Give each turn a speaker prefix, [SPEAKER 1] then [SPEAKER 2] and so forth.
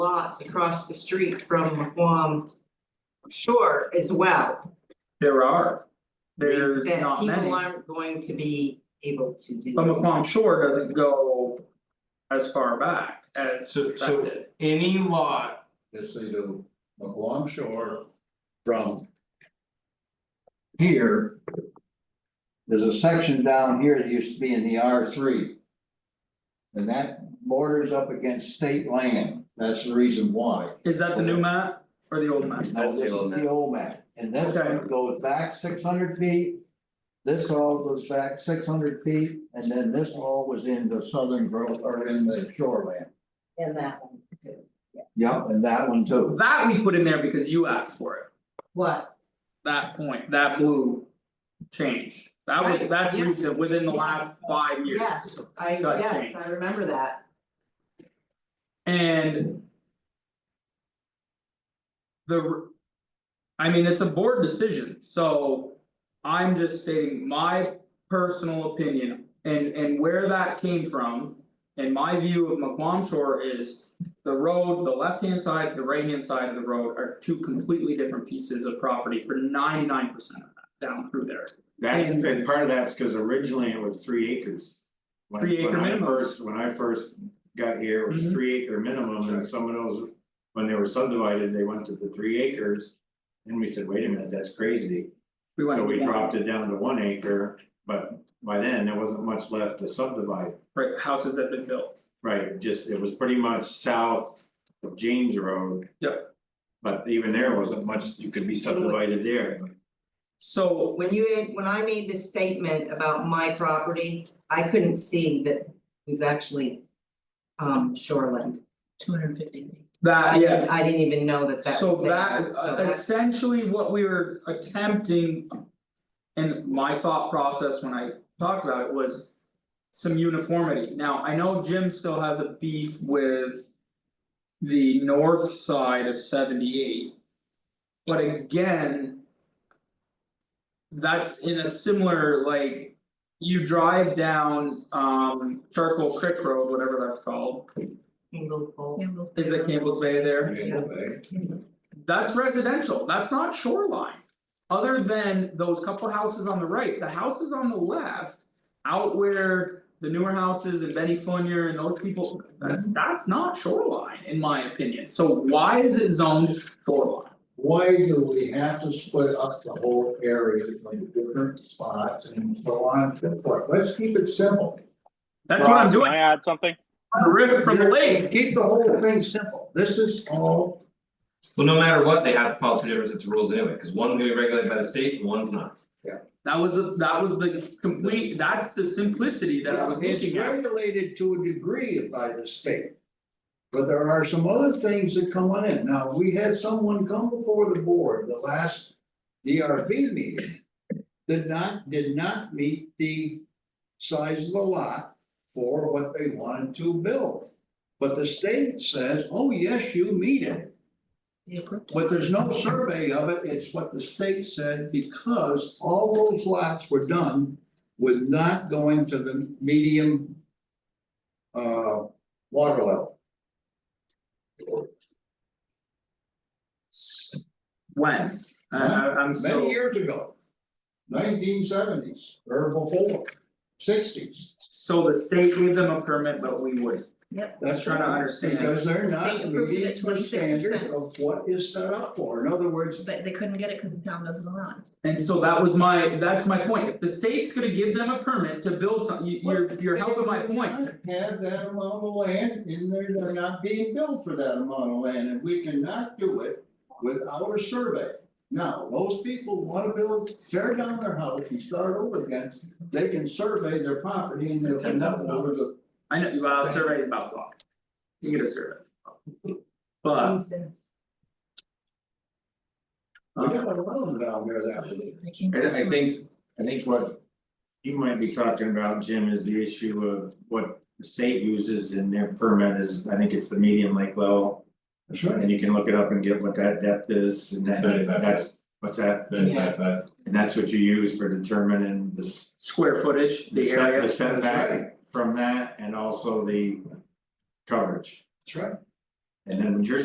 [SPEAKER 1] lots across the street from Guam shore as well.
[SPEAKER 2] There are. There's
[SPEAKER 1] That
[SPEAKER 2] not
[SPEAKER 1] people
[SPEAKER 2] many,
[SPEAKER 1] aren't going to be able to do.
[SPEAKER 2] but McQuam Shore doesn't go. As far back as
[SPEAKER 3] So- so-
[SPEAKER 2] that did.
[SPEAKER 3] any lot,
[SPEAKER 4] Yes, they do, McQuam Shore from. Here. There's a section down here that used to be in the R three. And that borders up against state land, that's the reason why.
[SPEAKER 2] Is that the new map or the old map?
[SPEAKER 5] That's the old map.
[SPEAKER 4] The old map, and this
[SPEAKER 2] Okay.
[SPEAKER 4] one goes back six hundred feet. This all goes back six hundred feet, and then this all was in the southern growth or in the shoreland.
[SPEAKER 1] And that one too.
[SPEAKER 4] Yep, and that one too.
[SPEAKER 2] That we put in there because you asked for it,
[SPEAKER 1] What?
[SPEAKER 2] that point, that blue. Change, that was,
[SPEAKER 1] Right,
[SPEAKER 2] that's
[SPEAKER 1] yeah.
[SPEAKER 2] recent, within the last five years.
[SPEAKER 1] Yes, I,
[SPEAKER 2] Got
[SPEAKER 1] yes,
[SPEAKER 2] changed.
[SPEAKER 1] I remember that.
[SPEAKER 2] And. The. r- I mean, it's a board decision, so. I'm just stating my personal opinion and and where that came from. And my view of McQuam Shore is the road, the left hand side, the right hand side of the road are two completely different pieces of property for ninety nine percent of that down through there.
[SPEAKER 5] That's and part of that's cause originally it was three acres. When-
[SPEAKER 2] Three acre
[SPEAKER 5] When I
[SPEAKER 2] minimums.
[SPEAKER 5] first, when I first got here, it was
[SPEAKER 2] Mhm.
[SPEAKER 5] three acre minimum and some of those, when they were subdivided, they went to the three acres. And we said, wait a minute, that's crazy,
[SPEAKER 2] We went.
[SPEAKER 5] so we
[SPEAKER 2] down.
[SPEAKER 5] dropped it down to one acre, but by then there wasn't much left to subdivide.
[SPEAKER 2] Right, houses that have been built,
[SPEAKER 5] Right, just it was pretty much south of James Road.
[SPEAKER 2] Yep.
[SPEAKER 5] But even there wasn't much, you could be subdivided there,
[SPEAKER 2] so
[SPEAKER 1] When you, had- when I made this statement about my property, I couldn't see that it was actually um shoreland. Two hundred fifty feet. I
[SPEAKER 2] that, yeah.
[SPEAKER 1] didn't, I didn't even know that that
[SPEAKER 2] So
[SPEAKER 1] was there,
[SPEAKER 2] that
[SPEAKER 1] so
[SPEAKER 2] uh,
[SPEAKER 1] that's
[SPEAKER 2] essentially what we were attempting. And my thought process when I talked about it was. Some uniformity, now I know Jim still has a beef with. The north side of seventy eight. But again. That's in a similar like. You drive down um Charcoal Creek Road, whatever that's called,
[SPEAKER 1] Campbell's Bowl.
[SPEAKER 2] is it Campbell's Bay there? That's residential, that's not shoreline. Other than those couple houses on the right, the houses on the left. Out where the newer houses and Benny Funnier and those people, that- that's not shoreline in my opinion, so why is it zoned shoreline?
[SPEAKER 4] Why do we have to split up the whole area into different spots and so on and so forth? Let's keep it simple.
[SPEAKER 2] That's what I'm
[SPEAKER 6] Ross,
[SPEAKER 2] doing,
[SPEAKER 6] Can I add something?
[SPEAKER 2] rip from the lake,
[SPEAKER 4] Keep the whole thing simple. This is all,
[SPEAKER 6] Well, no matter what, they have to follow two different sets of rules anyway, because one will be regulated by the state and one's not.
[SPEAKER 2] that was the, that was the complete, that's the simplicity that I was
[SPEAKER 4] it's
[SPEAKER 2] looking at.
[SPEAKER 4] regulated to a degree by the state. But there are some other things that come on in. Now, we had someone come before the board, the last DRB meeting. Did not, did not meet the size of the lot for what they wanted to build. But the state says, oh, yes, you meet it. But there's no survey of it, it's what the state said, because all those lots were done with not going to the medium uh, water level.
[SPEAKER 2] When, I I am
[SPEAKER 4] Many
[SPEAKER 2] so,
[SPEAKER 4] years ago, nineteen seventies or before, sixties,
[SPEAKER 2] so the state gave them a permit, but we would,
[SPEAKER 4] that's
[SPEAKER 2] Trying
[SPEAKER 4] right.
[SPEAKER 2] to understand.
[SPEAKER 4] Because they're
[SPEAKER 7] State
[SPEAKER 4] not
[SPEAKER 7] approved it at
[SPEAKER 4] meeting the standard
[SPEAKER 7] 26%.
[SPEAKER 4] of what is set up for, in other words,
[SPEAKER 7] But they couldn't get it because the town doesn't allow it.
[SPEAKER 2] And so that was my, that's my point, if the state's gonna give them a permit to build some, you you're you're helping my point.
[SPEAKER 4] Have that amount of land in there, they're not being built for that amount of land, and we cannot do it without a survey. Now, those people wanna build, tear down their house and start over again, they can survey their property and they'll.
[SPEAKER 3] Ten thousand dollars.
[SPEAKER 2] I know, well, survey's about law. You get a survey. But
[SPEAKER 4] We got a road down there that way.
[SPEAKER 5] And I think, I think what you might be talking about, Jim, is the issue of what the state uses in their permit is, I think it's the median lake level.
[SPEAKER 4] That's right.
[SPEAKER 5] And you can look it up and get what that depth is and that,
[SPEAKER 3] Seventy-five.
[SPEAKER 5] that's, what's that? And that's what you use for determining the s-
[SPEAKER 2] square footage,
[SPEAKER 5] the
[SPEAKER 2] the
[SPEAKER 5] set, the
[SPEAKER 2] area,
[SPEAKER 4] That's
[SPEAKER 5] setback
[SPEAKER 4] right,
[SPEAKER 5] from that and also the coverage.
[SPEAKER 4] that's right.
[SPEAKER 5] And then New Jersey